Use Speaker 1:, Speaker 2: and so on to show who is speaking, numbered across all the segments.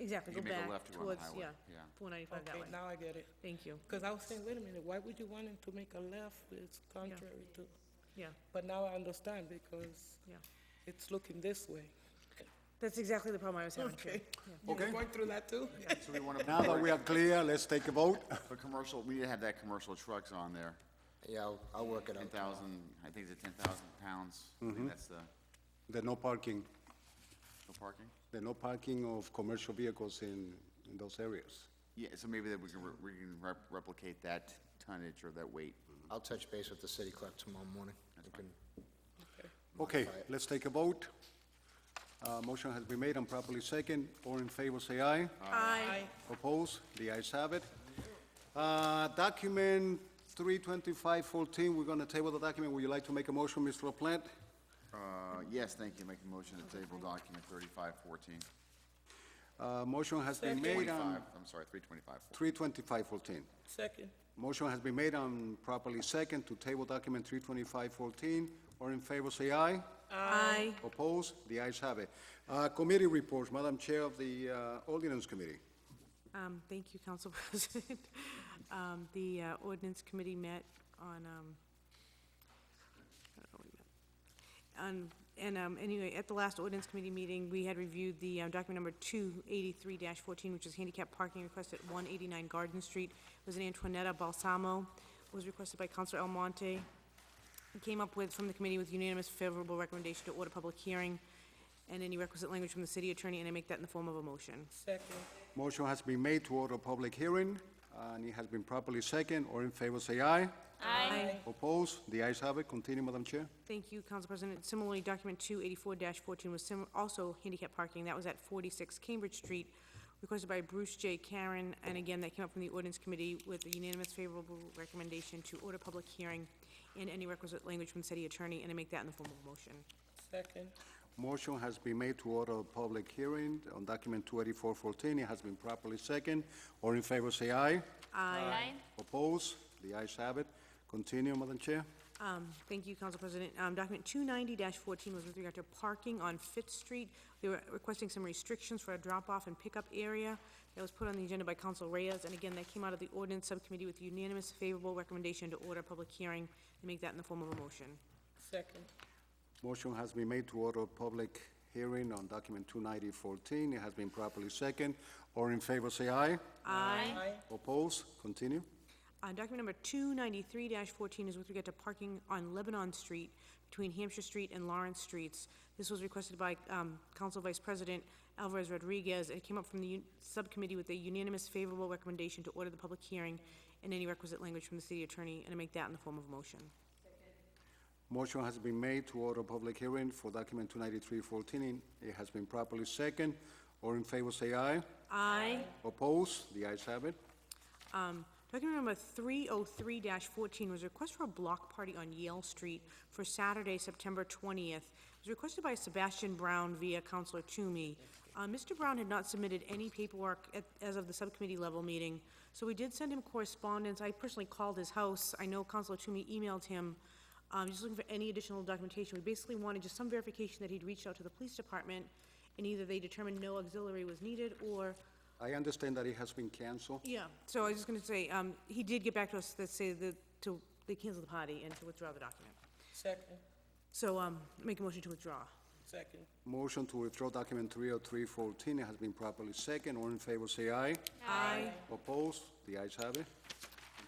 Speaker 1: Exactly, go
Speaker 2: You make a
Speaker 1: back
Speaker 2: left to go on the
Speaker 1: towards,
Speaker 2: highway,
Speaker 1: yeah,
Speaker 2: yeah.
Speaker 1: 495 that
Speaker 3: Okay,
Speaker 1: way.
Speaker 3: now I get it.
Speaker 1: Thank you,
Speaker 3: Because I was saying, wait a minute, why would you want him to make a left? It's contrary to,
Speaker 1: yeah,
Speaker 3: but now I understand because
Speaker 1: yeah.
Speaker 3: it's looking this way.
Speaker 1: That's exactly the problem I was having too.
Speaker 3: Okay. You
Speaker 2: Okay.
Speaker 3: going through that too?
Speaker 2: So we want to,
Speaker 4: Now that we are clear, let's take a vote.
Speaker 2: for commercial, we need to have that commercial trucks on there.
Speaker 5: Yeah, I'll, I'll work it
Speaker 2: Ten
Speaker 5: out. tomorrow.
Speaker 2: thousand, I think it's a ten thousand pounds. I think that's the, the
Speaker 4: There's no parking,
Speaker 2: parking.
Speaker 4: there's no parking of commercial vehicles in, in those areas.
Speaker 2: Yeah, so maybe that we can, re- we can rep- replicate that tonnage or that weight.
Speaker 5: I'll touch base with the city clerk tomorrow morning. We can,
Speaker 4: Okay, let's take a vote. Uh, motion has been made and properly second. All in favor, say aye.
Speaker 2: Uh,
Speaker 1: Aye.
Speaker 4: Oppose? The ayes have it. Uh, document three twenty-five fourteen, we're gonna table the document. Would you like to make a motion, Mr. LaPlante?
Speaker 2: Uh, yes, thank you, make a motion to table document thirty-five fourteen.
Speaker 4: Uh, motion has been made
Speaker 2: Twenty-five,
Speaker 4: on
Speaker 2: I'm sorry, three twenty-five.
Speaker 4: three twenty-five fourteen.
Speaker 3: Second.
Speaker 4: Motion has been made and properly second to table document 32514. All in favor, say aye.
Speaker 1: Aye.
Speaker 4: Opposed? The ayes have it. Uh, Committee reports, Madam Chair of the uh, Ordinance Committee.
Speaker 1: Um, Thank you, Council President. Um, The uh, ordinance committee met on, um, I don't know what we met. On- And um, anyway, at the last ordinance committee meeting, we had reviewed the uh, document number 283-14, which is handicap parking request at 189 Garden Street. It was an Antoinetta Balsamo, was requested by Councilor Almonte. We came up with, from the committee, with unanimous favorable recommendation to order public hearing and any requisite language from the city attorney, and I make that in the form of a motion.
Speaker 3: Second.
Speaker 4: Motion has been made to order a public hearing, and it has been properly second. All in favor, say aye.
Speaker 1: Aye.
Speaker 4: Opposed? The ayes have it. Continue, Madam Chair.
Speaker 1: Thank you, Council President. Similarly, document two eighty-four fourteen was sim- also handicap parking. That was at forty-six Cambridge Street, requested by Bruce J. Karen, and again, that came up from the ordinance committee with a unanimous favorable recommendation to order public hearing and any requisite language from city attorney, and I make that in the form of a motion.
Speaker 3: Second.
Speaker 4: Motion has been made to order a public hearing on document 28414. It has been properly second. All in favor, say aye.
Speaker 6: Aye.
Speaker 4: Opposed? The ayes have it. Continue, Madam Chair.
Speaker 1: Um, thank you, Council President. Um, document two ninety fourteen was with regard to parking on Fifth Street. They were requesting some restrictions for a drop-off and pickup area. That was put on the agenda by Council Reyes, and again, that came out of the ordinance subcommittee with unanimous favorable recommendation to order a public hearing and make that in the form of a motion.
Speaker 3: Second.
Speaker 4: Motion has been made to order a public hearing on document 29014. It has been properly second. All in favor, say aye.
Speaker 6: Aye.
Speaker 3: Aye.
Speaker 4: Oppose? Continue.
Speaker 1: Uh, document number two ninety-three fourteen is with regard to parking on Lebanon Street between Hampshire Street and Lawrence Streets. This was requested by, um, Council Vice President Alvarez Rodriguez. It came up from the un- subcommittee with a unanimous favorable recommendation to order the public hearing and any requisite language from the city attorney, and I make that in the form of a motion.
Speaker 4: Motion has been made to order a public hearing for document 29314. It has been properly second. All in favor, say aye.
Speaker 1: Aye.
Speaker 4: Oppose? The ayes have it.
Speaker 1: Um, document number three oh three fourteen was a request for a block party on Yale Street for Saturday, September twentieth. It was requested by Sebastian Brown via Counselor Toomey. Uh, Mr. Brown had not submitted any paperwork at, as of the subcommittee level meeting, so we did send him correspondence. I personally called his house. I know Counselor Toomey emailed him. Um, just looking for any additional documentation. We basically wanted just some verification that he'd reached out to the police department, and either they determined no auxiliary was needed, or
Speaker 4: I understand that it has been canceled.
Speaker 1: yeah, so I was just gonna say, um, he did get back to us that say that to, they canceled the party and to withdraw the document.
Speaker 3: Second.
Speaker 1: So, um, make a motion to withdraw.
Speaker 3: Second.
Speaker 4: Motion to withdraw document 30314. It has been properly second. All in favor, say aye.
Speaker 1: Aye.
Speaker 4: Oppose? The ayes have it.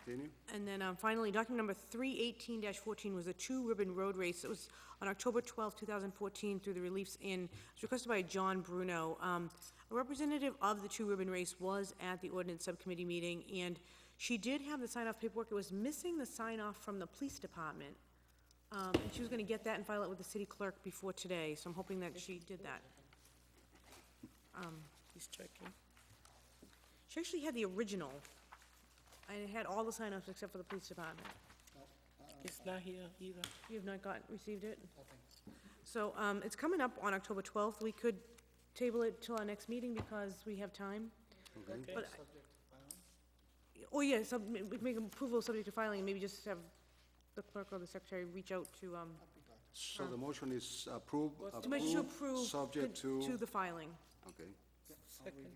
Speaker 4: Continue.
Speaker 1: And then, um, finally, document number three eighteen fourteen was the Two Ribbon Road Race. It was on October twelfth, two thousand fourteen, through the Reliefs Inn. It was requested by John Bruno. Um, a representative of the Two Ribbon Race was at the ordinance subcommittee meeting, and she did have the sign-off paperwork. It was missing the sign-off from the police department. Um, and she was gonna get that and file it with the city clerk before today, so I'm hoping that she did that.
Speaker 3: He's checking.
Speaker 1: She actually had the original, and it had all the sign-offs except for the police department.
Speaker 3: It's not here either.
Speaker 1: You have not gotten, received it? So, um, it's coming up on October twelfth, we could table it till our next meeting because we have time.
Speaker 3: Okay.
Speaker 1: But- Oh, yeah, sub, ma- we make approval subject to filing, and maybe just have the clerk or the secretary reach out to, um,
Speaker 4: So the motion is approved?
Speaker 1: to make sure approve.
Speaker 4: Subject
Speaker 1: To
Speaker 4: to,
Speaker 1: the filing.
Speaker 4: okay.
Speaker 3: Second.